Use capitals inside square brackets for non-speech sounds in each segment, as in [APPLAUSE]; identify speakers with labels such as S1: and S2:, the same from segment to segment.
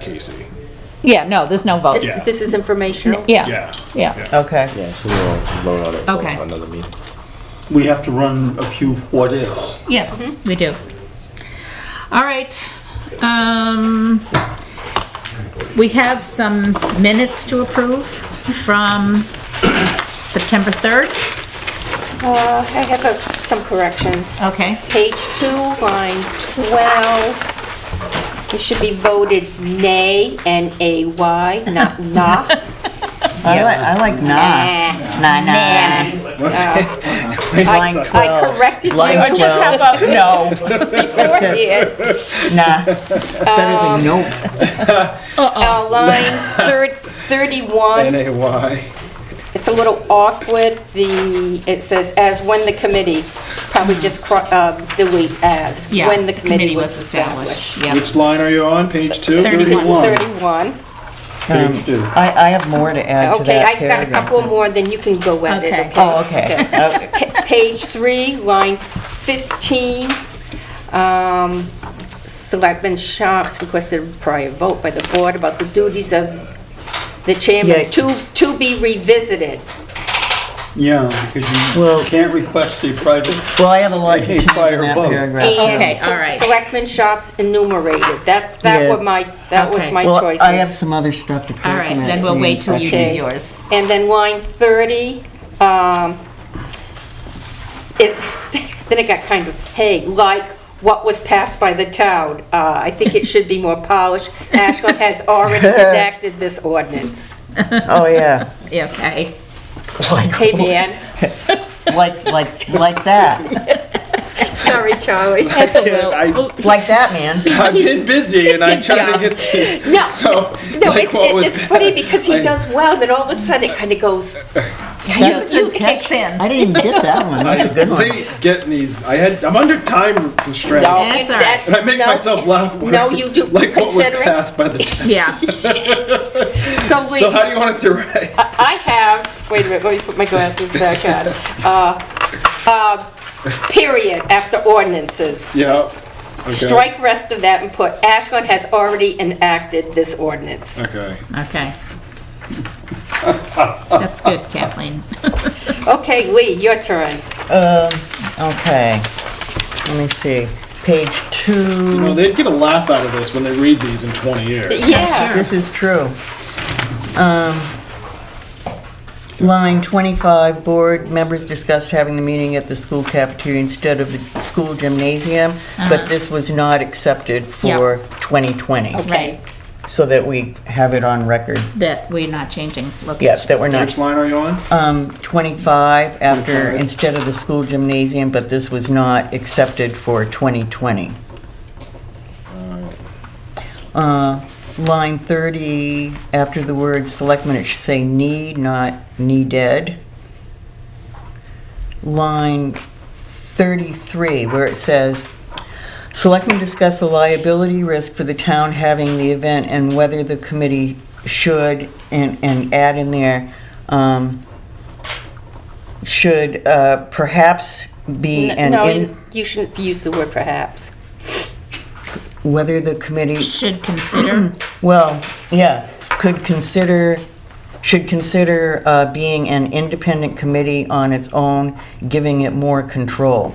S1: Casey.
S2: Yeah, no, there's no vote.
S1: Yeah.
S3: This, this is informational.
S2: Yeah,
S1: Yeah.
S2: yeah.
S4: Okay,
S5: Yeah, so we'll vote on it for
S2: Okay.
S5: another meeting.
S6: We have to run a few what-ifs.
S2: Yes,
S3: Mm-hmm.
S2: we do. All right. um, We have some minutes to approve from September 3rd.
S3: Uh, I have uh, some corrections.
S2: Okay.
S3: Page two, line 12, it should be voted nay, N-A-Y, [LAUGHS] not nah.
S4: I like, I like nah,
S3: Ah.
S4: nah, nah.
S3: Nah.
S4: Line
S3: I
S4: 12,
S3: corrected you,
S4: Line
S3: I just have a [LAUGHS]
S2: No.
S3: beforehand.
S4: nah. Oh. It's better than nope.
S3: Uh, Line thir- 31,
S1: NAY.
S3: it's a little awkward, the, it says, "As when the committee," probably just cro- uh, delete "as,"
S2: Yeah,
S3: when the committee was established.
S2: Yeah.
S1: Which line are you on? Page two?
S2: 31.
S3: 31.
S4: Um,
S6: Page two.
S4: I, I have more to add to
S3: Okay,
S4: that
S3: I've got a
S4: paragraph.
S3: couple more, then you can go at it,
S2: Okay.
S3: okay?
S4: Oh, okay. Okay.
S3: Pa- Page three, line 15, um, Selectman Sharps requested a prior vote by the board about the duties of the
S4: Yeah. Uh-huh.
S3: chairman to, to be revisited.
S6: Yeah,
S4: Well-
S6: because you can't request a private,
S4: Well, I have
S1: [LAUGHS]
S4: a lot to
S6: Hey,
S4: change in
S6: prior
S4: that
S6: vote.
S4: paragraph.
S2: Okay,
S3: And Se-
S2: all right.
S3: Selectman Sharps enumerated, that's, that
S4: Yeah.
S3: were my, that was
S2: Okay.
S3: my
S4: Well,
S3: choices.
S4: I have some other stuff to correct.
S2: All right,
S4: in that
S2: then we'll
S4: same
S2: wait till you do
S4: section.
S3: Okay.
S2: yours.
S3: And then line 30, um, it's, [LAUGHS] then it got kind of, hey, like what was passed by the town. Uh, I think it should be more polished.
S1: [LAUGHS]
S3: Ashland has already enacted this ordinance.
S4: Oh, yeah.
S2: Yeah, Okay.
S1: [LAUGHS]
S3: Hey, man.
S4: Like, like, like that.
S3: Sorry, Charlie.
S2: That's a
S1: Yeah, I-
S3: Oh,
S2: little,
S4: Like that, man.
S1: I've been busy and I'm
S2: Good
S1: trying to
S2: job.
S1: get these.
S3: [LAUGHS] No,
S1: So,
S3: No,
S1: like
S3: it's,
S1: what was
S3: it's funny because he
S1: I-
S3: does well, then all of a sudden it kind of goes,
S2: you you kicks in.
S4: I didn't even get that one.
S1: I
S4: That's a good one.
S1: hate getting these. I had. I'm under time constraints.
S3: no.
S2: That's all
S3: that-
S1: And I make
S3: no,
S1: myself laugh. when
S3: No,
S1: I-
S3: you do,
S1: Like what was
S3: considering.
S1: passed by the. T-
S2: Yeah.
S3: So
S1: [LAUGHS]
S3: we.
S1: so how do you want it to write?
S3: I have, wait a minute, let me put my glasses back on. Uh, uh, Period after ordinances.
S1: yeah. Okay.
S3: Strike rest of that and put Ashland has already enacted this ordinance.
S1: Okay.
S2: Okay. That's good, Kathleen.
S3: Okay, Lee, your turn.
S4: Um, okay. Let me see. Page
S1: You know,
S4: two.
S1: they'd get a laugh out of this when they read these in 20 years.
S3: Yeah.
S4: This is true. Um, line twenty-five, board members discussed having the meeting at the school cafeteria instead of the school gymnasium, but this was not accepted for twenty twenty,
S3: Okay,
S4: so that we have it on record.
S2: That we're not changing locations.
S4: Yes, that we're not.
S1: Which line are you on?
S4: Um, twenty-five after,
S1: 25.
S4: instead of the school gymnasium, but this was not accepted for twenty twenty. Uh, line thirty, after the word selectmen, it should say need, not needed. Line thirty-three, where it says, selectmen discuss the liability risk for the town having the event and whether the committee should, and, and add in there, um, should, uh, perhaps be
S3: N-
S4: an
S3: no,
S4: in,
S3: you- you shouldn't use the word perhaps.
S4: whether the committee
S2: Should consider,
S4: Well, yeah, could consider, should consider uh, being an independent committee on its own, giving it more control.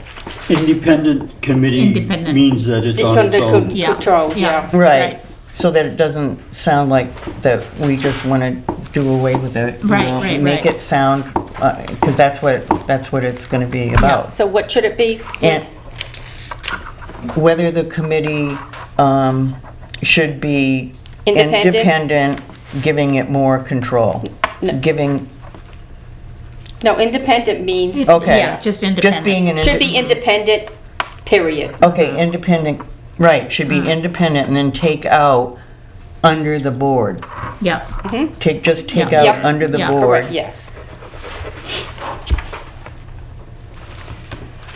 S6: independent committee
S2: Independent.
S6: means that it's
S3: It's
S6: on its
S3: under co-
S6: own.
S2: yeah.
S3: control, yeah.
S2: that's
S4: So that it doesn't sound like that we just want to do away with it. you
S2: Right,
S4: know,
S2: right,
S4: Make
S2: right.
S4: it sound, because that's what, that's what it's going to be about.
S3: So what should it be?
S4: Oh. And whether the committee um, should be
S3: Independent?
S4: independent, giving it more control, giving,
S3: No, independent means,
S4: Okay.
S2: Yeah, just
S4: just
S2: independent.
S4: being an.
S3: should
S4: inde-
S3: be independent, period.
S4: Okay, independent, right, should
S2: Mm.
S4: be independent and then take out under the board.
S2: Yeah,
S4: Take, just take
S2: Yeah.
S4: out
S3: Yep.
S4: under the
S2: Yeah,
S4: board,
S3: Correct, yes.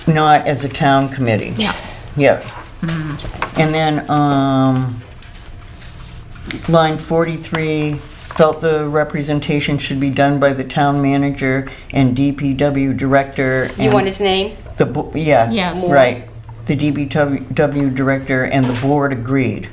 S4: not as a town committee.
S2: yeah. Mm.
S4: Yep. And then, um, line 43, felt the representation should be done by the town manager and DPW director.
S3: You
S4: and
S3: want his name?
S4: The, bo- yeah.
S2: Yes.
S4: Right. The DPW director and the board agreed.